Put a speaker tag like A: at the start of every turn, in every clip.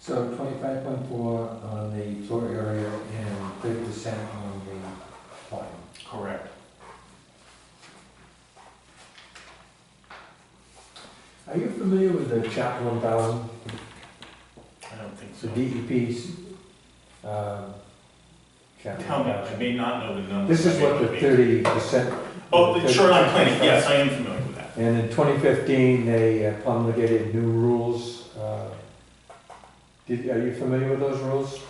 A: So twenty-five point four on the floor area and thirty percent on the volume.
B: Correct.
A: Are you familiar with the chapter one thousand,
B: I don't think
A: so
B: so.
A: DEP's, um, chapter
B: Tell me,
A: 1000?
B: I may not know the numbers.
A: This is what the thirty percent.
B: Oh, the shoreline planning, yes, I am familiar with that.
A: And in twenty fifteen, they uh, promulgated new rules, uh, did, are you familiar with those rules?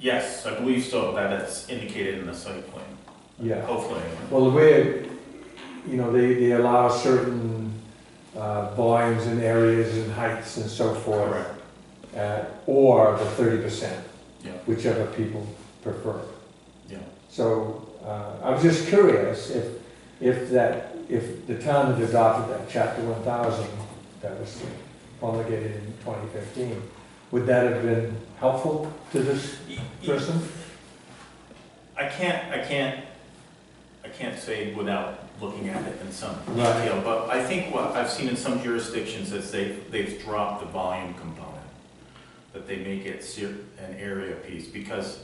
B: Yes, I believe so, that it's indicated in the site plan.
A: Yeah.
B: Hopefully, I
A: Well, the way, it- you know, they, they allow certain uh, volumes and areas and heights and so
B: am.
A: forth.
B: correct.
A: uh, Or the thirty percent.
B: Yeah.
A: Whichever people prefer.
B: Yeah.
A: So uh, I was just curious if, if that, if the town had adopted that chapter one thousand that was promulgated in twenty fifteen, would that have been helpful to this
B: E- e-
A: person?
B: I can't, I can't, I can't say without looking at it in some
A: Right.
B: detail, but I think what I've seen in some jurisdictions is they've, they've dropped the volume component, that they make it ser- an area piece, because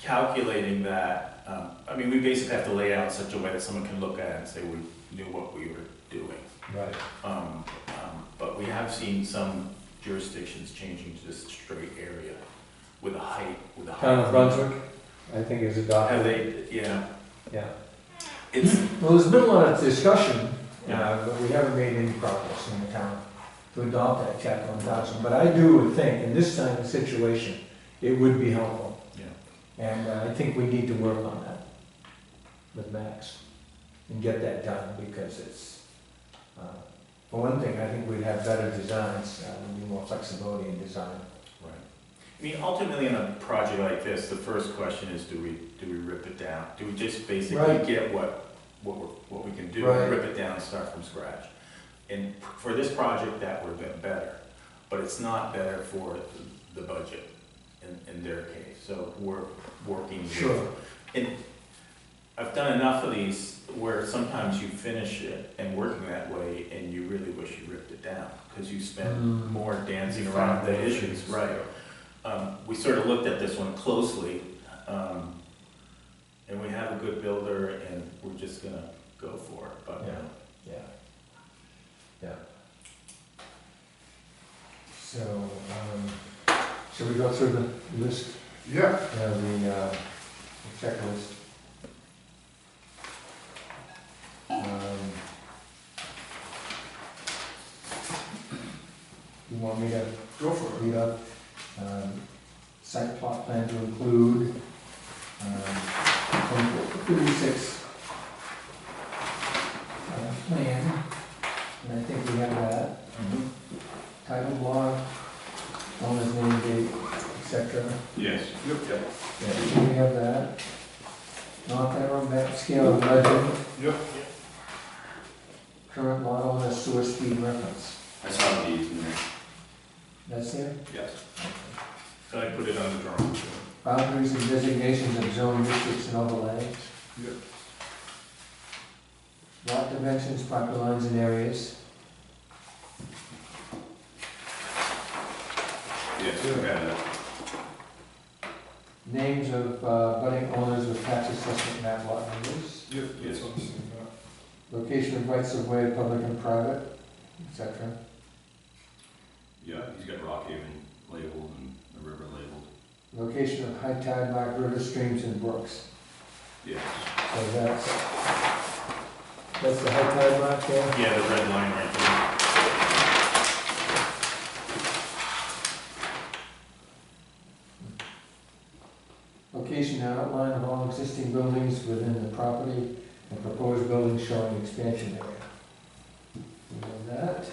B: calculating that, um, I mean, we basically have to lay it out in such a way that someone can look at it and say, we knew what we were doing.
A: Right.
B: Um, um, But we have seen some jurisdictions changing to just straight area with a height, with a height.
A: Town of Brunswick, I think is adopted.
B: Have they, yeah.
A: Yeah.
B: It's,
A: Well, there's been a lot of discussion, uh, but we haven't made any progress in the town to adopt that chapter one thousand. But I do think in this kind of situation, it would be helpful.
B: Yeah.
A: And uh, I think we need to work on that with Max and get that done because it's, uh, for one thing, I think we'd have better designs, uh, we'd be more flexibility in design.
B: right. I mean, ultimately, in a project like this, the first question is, do we, do we rip it down? Do we just basically
A: Right.
B: get what, what we're, what we can do,
A: Right.
B: rip it down and start from scratch? And for this project, that would have been better, but it's not better for the budget in, in their case. So we're working with I've done enough of these where sometimes you finish it and working that way and you really wish you ripped it down because you spend
A: Mm.
B: more dancing around the issues, right? Um, we sort of looked at this one closely, um, and we have a good builder and we're just gonna go for it, but,
A: Yeah. Yeah. Yeah. So, um, should we go through the list,
C: Yeah,
A: uh, the, uh, the checklist? Um, You want me to
C: go for it.
A: read up, um, site plot plan to include, um, twenty-four, thirty-six. Uh, plan, and I think we have that
B: Mm-hmm.
A: title block, owner's name, date, et cetera.
B: Yes.
C: Yep.
A: Yeah, we have that. Not that on map scale of legend,
C: Yep.
A: current lot owner, sewer speed reference.
D: I saw these in there.
A: That's it?
D: Yes.
B: So I put it on the drawing.
A: Boundaries and designations of zone districts and overlays.
C: Yep.
A: Lot dimensions, property lines and areas.
D: Yes, I got it.
A: Names of uh, budding owners with tax assessment map lot numbers.
C: Yep, that's
D: Yes.
C: what I'm saying, yeah.
A: Location of rights of way, public and private, et cetera.
D: Yeah, he's got rock haven labeled and the river labeled.
A: Location of high tide mark river streams and brooks.
D: Yes.
A: So that's, that's the high tide mark there.
B: Yeah, the red line right there.
A: Location and outline of all existing buildings within the property and proposed buildings showing expansion area. We have that.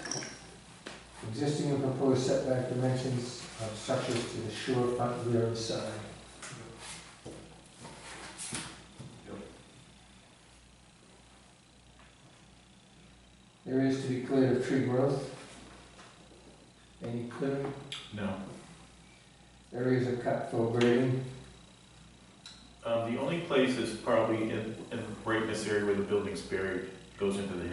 A: Existing and proposed setback dimensions of structures to the shore front rear and side. Areas to be cleared of tree growth. Any clearing?
B: No.
A: Areas of cut for grading,
B: Um, the only place is probably in, in, right in this area where the building's buried, goes into the